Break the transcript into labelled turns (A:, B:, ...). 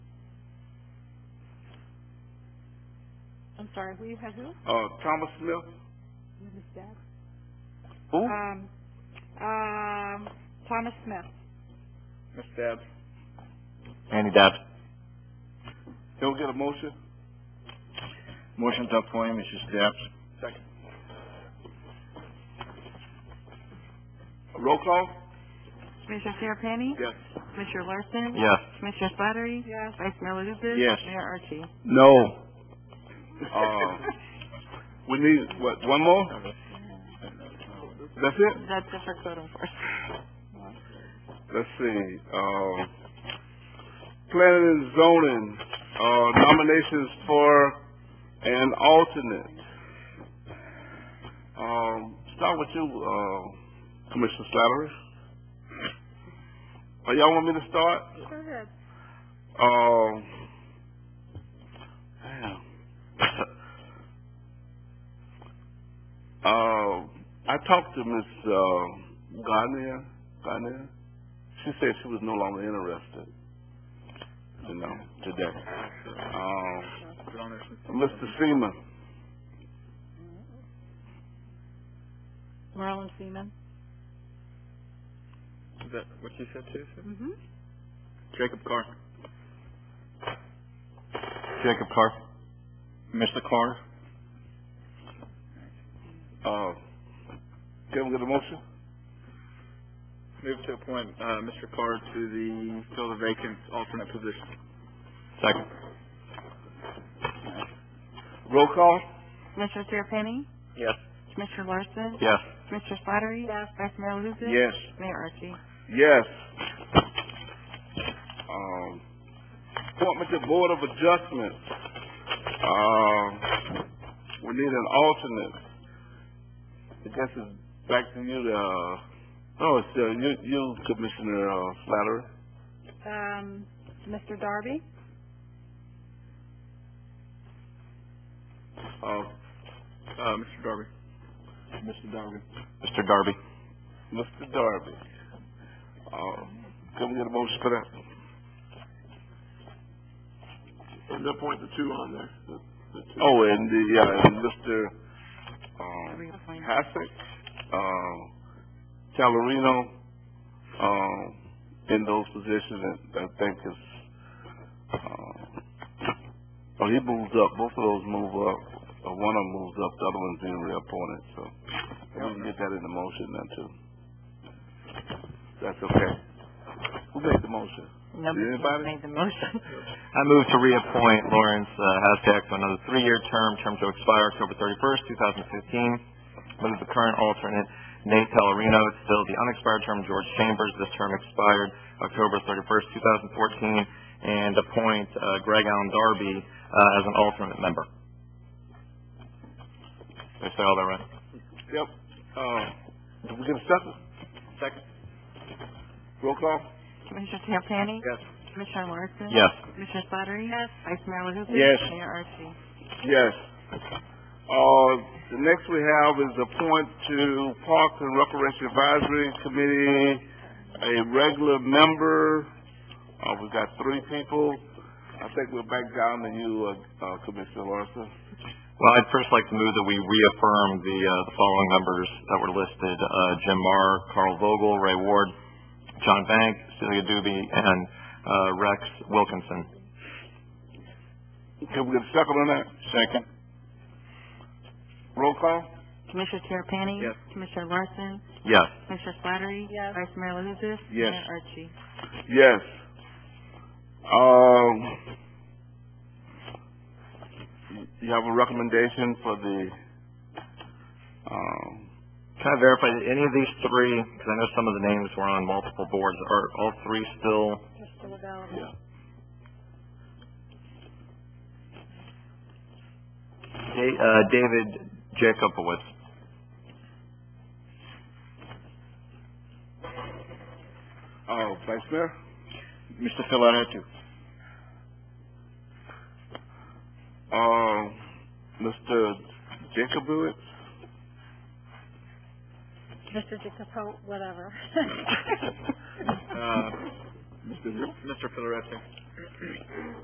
A: I'm sorry, who you have who?
B: Uh, Thomas Smith?
A: Who is that?
B: Who?
A: Um, um, Thomas Smith.
B: Ms. Dabbs.
C: Andy Dobbs.
B: Can we get a motion?
C: Motion to appoint Mrs. Dabbs.
B: Second. Roll call?
D: Commissioner Terrapini?
B: Yes.
D: Commissioner Larson?
C: Yes.
D: Commissioner Slattery?
A: Yes.
D: Vice Mayor Lucas?
C: Yes.
D: Mayor Archie?
C: No.
B: Uh, we need, what, one more? That's it?
D: That's it for code enforcement.
B: Let's see, uh, planning and zoning, uh, nominations for an alternate. Um, start with you, uh, Commissioner Slattery. Oh, y'all want me to start?
A: Go ahead.
B: Um, damn. uh, I talked to Miss uh, Garnier. Garnier. She said she was no longer interested. You know, today. Um, Mr. Seaman.
A: Marlon Seaman.
C: Is that what you said too, sir?
A: Mm-hmm.
C: Jacob Carr. Jacob Carr. Mr. Carr.
B: Uh, can we get a motion?
C: Move to appoint, uh, Mr. Carr to the, fill the vacant alternate position. Second.
B: Roll call.
D: Commissioner Terrapini?
C: Yes.
D: Commissioner Larson?
C: Yes.
D: Commissioner Slattery? Yes. Vice Mayor Lucas?
B: Yes.
D: Mayor Archie?
B: Yes. Um, appointment to Board of Adjustment. Um, we need an alternate. I guess it's back to you, to, uh, no, it's, uh, you, you Commissioner, uh, Slattery.
A: Um, Mr. Darby.
B: Uh,
C: Uh, Mr. Darby.
B: Mr. Darby.
C: Mr. Darby.
B: Mr. Darby. Uh, can we get a motion for that? And appoint the two on there. Oh, and the, yeah, and Mr., um,
D: Reappoint.
B: Hassick, um, Calorino, um, in those positions that I think is, um, oh, he moves up, both of those move up, or one of them moves up, the other one's being reappointed, so we can get that in the motion then too. That's okay. Who made the motion?
D: Nobody
B: Anybody?
D: made the motion.
C: I move to reappoint Lawrence uh, Hasdack to another three-year term, term to expire October thirty-first, two thousand fifteen. Move the current alternate Nate Pellerino to fill the unexpired term of George Chambers. This term expired October thirty-first, two thousand fourteen, and appoint uh, Greg Allen Darby uh, as an alternate member. Did I say all that right?
B: Yep, uh, did we get a second?
C: Second.
B: Roll call?
D: Commissioner Terrapini?
B: Yes.
D: Commissioner Larson?
C: Yes.
D: Commissioner Slattery? Yes. Vice Mayor Lucas?
B: Yes.
D: Mayor Archie?
B: Yes. Uh, the next we have is appoint to Parks and Recreation Advisory Committee, a regular member. Uh, we've got three people. I think we're back down to you, uh, uh, Commissioner Larson.
C: Well, I'd first like to move that we reaffirm the, uh, the following members that were listed, uh, Jim Marr, Carl Vogel, Ray Ward, John Bank, Celia Doobie, and, uh, Rex Wilkinson.
B: Can we get a second on that?
C: Second.
B: Roll call?
D: Commissioner Terrapini?
B: Yes.
D: Commissioner Larson?
C: Yes.
D: Commissioner Slattery?
A: Yes.
D: Vice Mayor Lucas?
B: Yes.
D: Mayor Archie?
B: Yes. Um, you have a recommendation for the, um,
C: Can I verify that any of these three, because I know some of the names were on multiple boards, are all three still,
A: Just still available.
B: yeah.
C: Da- uh, David Jacobowitz?
B: Uh, Vice Mayor?
C: Mr. Philaretu.
B: Uh,
C: Um,
B: Mr. Jacobowitz?
A: Mr. Jacopo, whatever.
C: Uh, Mr. Philaretu.